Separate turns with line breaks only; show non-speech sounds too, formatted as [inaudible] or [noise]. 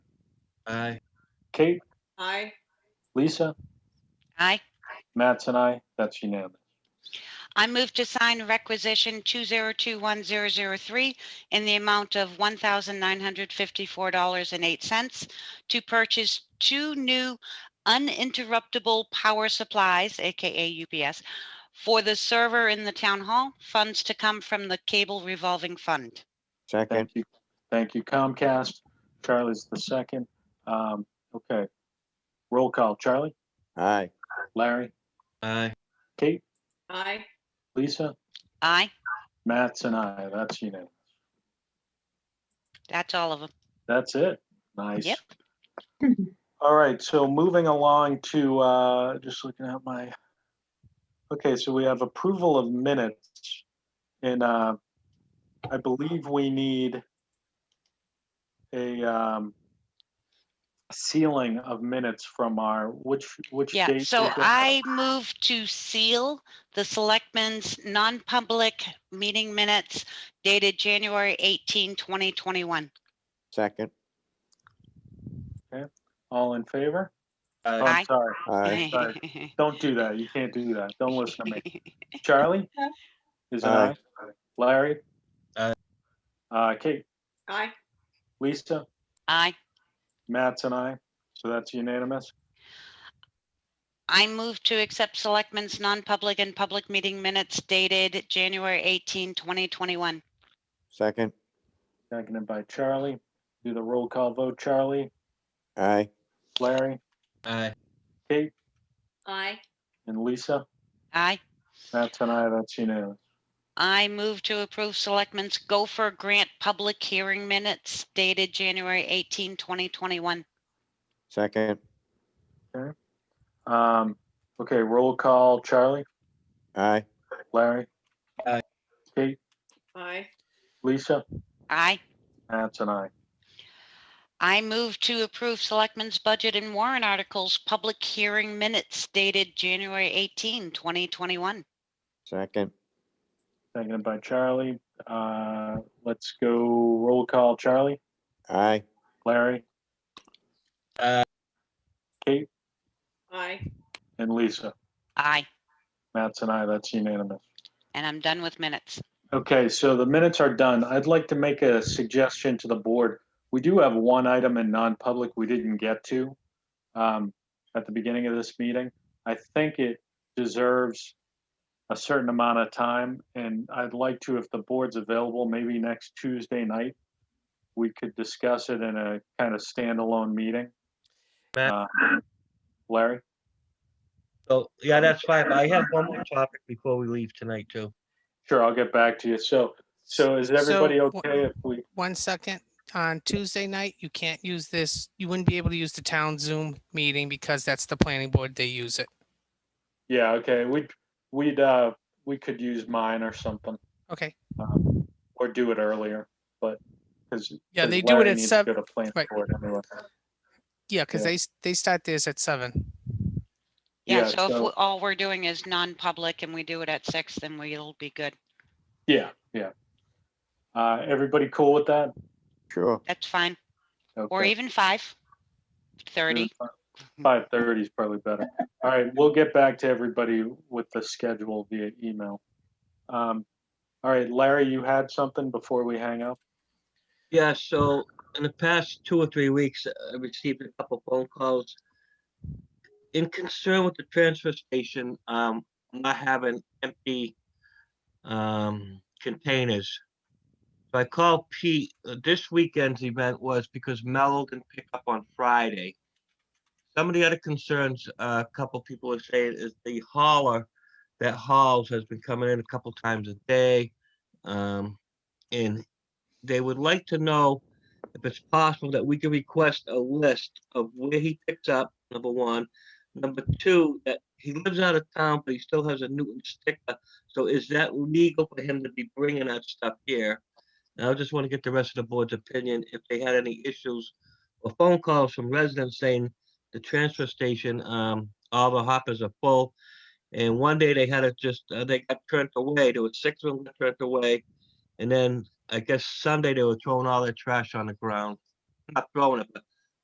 Aye.
Kate,
Aye.
Lisa,
Aye.
Matt's and I, that's unanimous.
I move to sign requisition 2021-003 in the amount of $1,954.08 to purchase two new uninterruptible power supplies, AKA UPS, for the server in the town hall, funds to come from the cable revolving fund.
Second,
Thank you. Thank you Comcast. Charlie's the second. Um, okay. Roll call. Charlie,
aye,
Larry,
Aye.
Kate,
Aye.
Lisa,
Aye,
Matt's and I, that's unanimous.
that's all of them.
That's it. Nice.
Yep.
[laughs] All right, so moving along to, uh, just looking at my, okay, so we have approval of minutes. And, uh, I believe we need a, um, sealing of minutes from our, which, which
Yeah,
date?
so
was that?
I move to seal the selectmen's non-public meeting minutes dated January 18, 2021.
second,
All in favor? Oh,
Aye.
Aye.
Sorry,
aye,
sorry. don't do that. You can't do that. Don't listen to me.
[laughs]
Charlie? Is it
Aye.
aye? Larry?
Aye.
Uh, Kate,
Aye.
Lisa,
Aye.
Matt's and I, so that's unanimous.
I move to accept selectmen's non-public and public meeting minutes dated January 18, 2021.
second,
Seconded by Charlie. Do the roll call vote. Charlie,
aye,
Larry,
Aye.
Kate,
Aye.
and Lisa.
Aye.
Matt's and I, that's unanimous.
I move to approve selectmen's gopher grant public hearing minutes dated January 18, 2021.
second,
Um, okay, roll call. Charlie,
aye,
Larry.
Aye.
Kate,
Aye.
Lisa,
Aye.
Matt's and I.
I move to approve selectmen's budget and warrant articles public hearing minutes dated January 18, 2021.
second,
Seconded by Charlie. Uh, let's go roll call. Charlie,
aye,
Larry,
Aye.
Kate,
Aye.
and Lisa.
Aye.
Matt's and I, that's unanimous.
And I'm done with minutes.
Okay, so the minutes are done. I'd like to make a suggestion to the board. We do have one item in non-public we didn't get to um, at the beginning of this meeting. I think it deserves a certain amount of time, and I'd like to, if the board's available, maybe next Tuesday night, we could discuss it in a kind of standalone meeting.
Matt?
Uh, Larry?
So, yeah, that's fine. but I have one more topic before we leave tonight too.
Sure, I'll get back to you. So, so is
So,
everybody
wh-
okay if we?
One second, on Tuesday night, you can't use this, you wouldn't be able to use the town Zoom meeting because that's the planning board, they use it.
Yeah, okay, we'd, we'd, uh, we could use mine or something,
Okay,
um, or do it earlier, but, because.
Yeah, they do it at sev-
Go to planning
right.
board anyway.
yeah, because
Yeah.
they, s- they start theirs at seven.
Yeah,
Yeah,
so if
so-
we- all we're doing is non-public and we do it at six, then we'll be good.
Yeah, yeah. Uh, everybody cool with that?
sure,
That's fine. Or
Okay.
even five thirty.
Five thirty is probably better. All right, we'll get back to everybody with the schedule via email. Um, all right, Larry, you had something before we hang up?
Yeah, so in the past two or three weeks, uh, I received a couple phone calls. In concern with the transfer station, um, not having empty um containers. So I called Pete, uh, this weekend's event was because Mellow can pick up on Friday. Some of the other concerns, uh, a couple people are saying is the hauler that hauls has been coming in a couple times a day. Um, and they would like to know if it's possible that we can request a list of where he picks up, number one. Number two, that he lives out of town, but he still has a Newton sticker. So is that legal for him to be bringing that stuff here? And I just want to get the rest of the board's opinion if they had any issues or phone calls from residents saying the transfer station, um, all the hoppers are full. And one day they had it just, uh, they got turned away. There was six of them that turned away. And then I guess Sunday they were throwing all their trash on the ground. Not throwing it, but